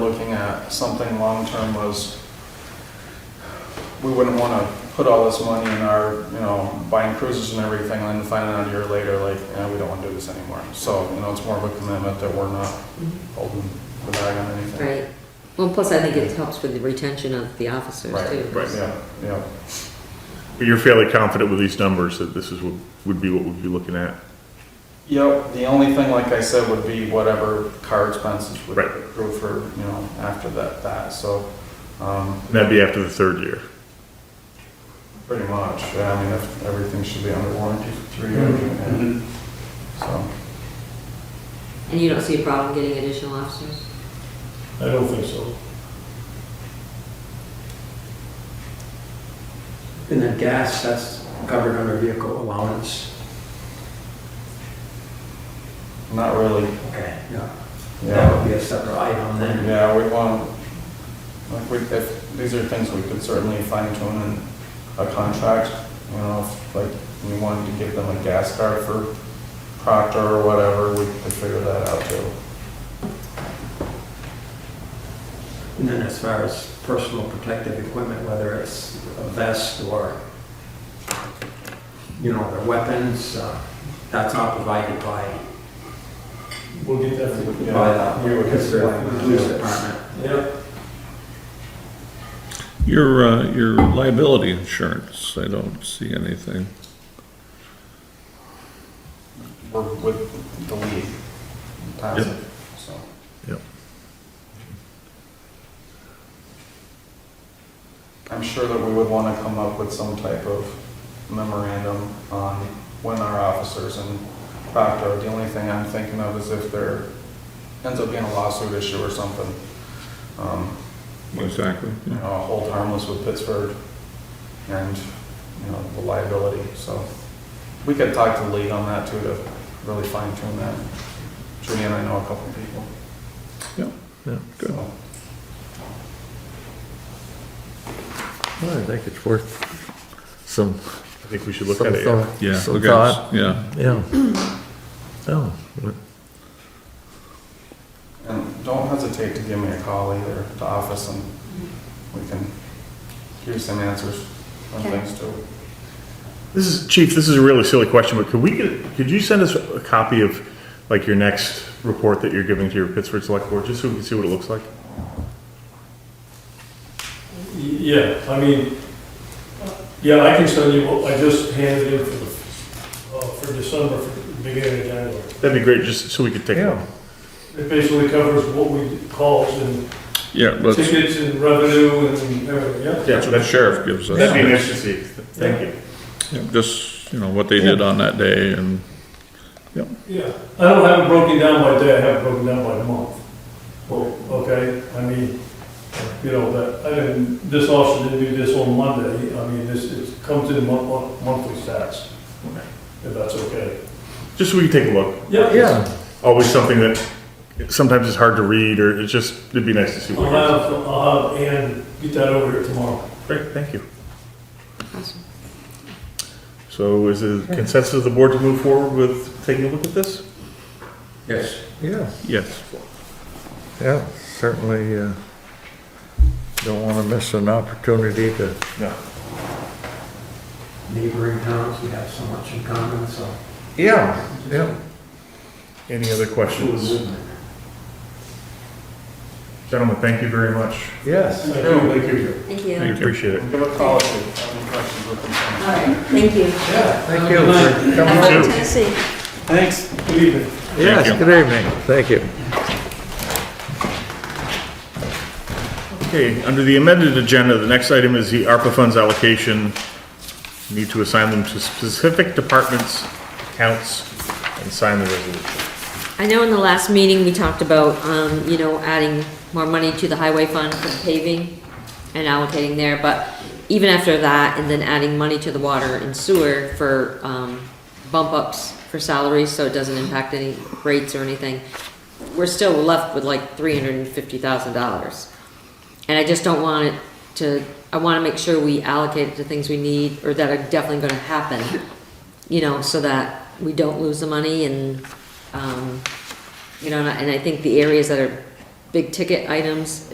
looking at something long-term was, we wouldn't want to put all this money in our, you know, buying cruisers and everything, and then find out a year later, like, eh, we don't want to do this anymore. So, you know, it's more of a commitment that we're not holding the bag on anything. Right. Well, plus I think it helps with the retention of the officers Right, too. right. Yeah, yeah. But you're fairly confident with these numbers that this is, what would be what we'd be looking at? Yep, the only thing, like I said, would be whatever car expenses would Right. accrue for, you know, after that, that, so, um, And that'd be after the third year. pretty much, yeah, I mean, if, everything should be under warranty for three years, Mm-hmm. and, so. And you don't see a problem getting additional officers? I don't think so. And the gas, that's covered under vehicle allowance. Not really, Okay. Yeah, that yeah. would be a separate item then. Yeah, we want, like, we, if, these are things we could certainly fine tune in a contract, you know, if, like, we wanted to give them a gas card for Proctor or whatever, we could figure that out too. And then as far as personal protective equipment, whether it's a vest or, you know, their weapons, uh, that's not provided by, We'll get that for you. by the we would the consider- police department. Yep. Your, uh, your liability insurance, I don't see anything. We're with the league, Thompson, so. Yep. I'm sure that we would want to come up with some type of memorandum on when our officers and Proctor, the only thing I'm thinking of is if there ends up being a lawsuit issue or something. Um, Exactly. You know, hold harmless with Pittsburgh and, you know, the liability, so. We could talk to the league on that too to really fine tune that. Judy and I know a couple of people. Yeah. so. Well, I think it's worth some, I think we should look some at it. yeah. thought. Yeah. Some okay, thought, Yeah. yeah. Oh, well, And don't hesitate to give me a call either, the office, and we can give you some answers on Okay. things too. This is, Chief, this is a really silly question, but could we, get? could you send us a copy of, like, your next report that you're giving to your Pittsburgh Select Board, just so we can see what it looks like? Yeah, I mean, yeah, I can send you, what I just handed in for the, uh, for December, for the beginning of January. That'd be great, just so we could take a look. It basically covers what we calls and Yeah, let's, tickets and revenue and everything, yeah? that's what the sheriff gives us. That'd be nice to see. Thank you. Yeah, Just, you know, what they did on that day and, Yeah, I don't have it broken down by day, I have it broken down by month. Well, okay, I mean, you know, that, I didn't, this officer didn't do this on Monday, I mean, this, it comes in mon- mon- monthly stats. If that's okay. Just so we can take a look. yeah, Always something that sometimes is hard to read, or it's just, it'd be nice to see I'll what it is. have, I'll have Ann get that over here tomorrow. Great, thank you. Awesome. So is it consensus of the board to move forward with taking a look at this? Yes. yeah, yes. yeah, certainly, uh, don't want to miss an opportunity to, No. Neighboring towns, we have so much in common, so. yeah, yeah. Any other questions? Gentlemen, thank you very much. Yes, Thank you. Thank you. Thank you. Appreciate it. Give a call if you have any questions or concerns. All right, thank you. thank you for Have coming. fun in too. Tennessee. Thanks. Good evening. Yes, you. good evening, thank you. Okay, under the amended agenda, the next item is the ARPA funds allocation. Need to assign them to specific departments, accounts, and sign the resolution. I know in the last meeting, we talked about, um, you know, adding more money to the highway fund for paving and allocating there, but even after that, and then adding money to the water and sewer for, um, bump ups for salaries, so it doesn't impact any rates or anything, we're still left with like three hundred and fifty thousand dollars. And I just don't want it to, I wanna make sure we allocate it to things we need, or that are definitely gonna happen, you know, so that we don't lose the money and, um, you know, and I and I think the areas that are big ticket items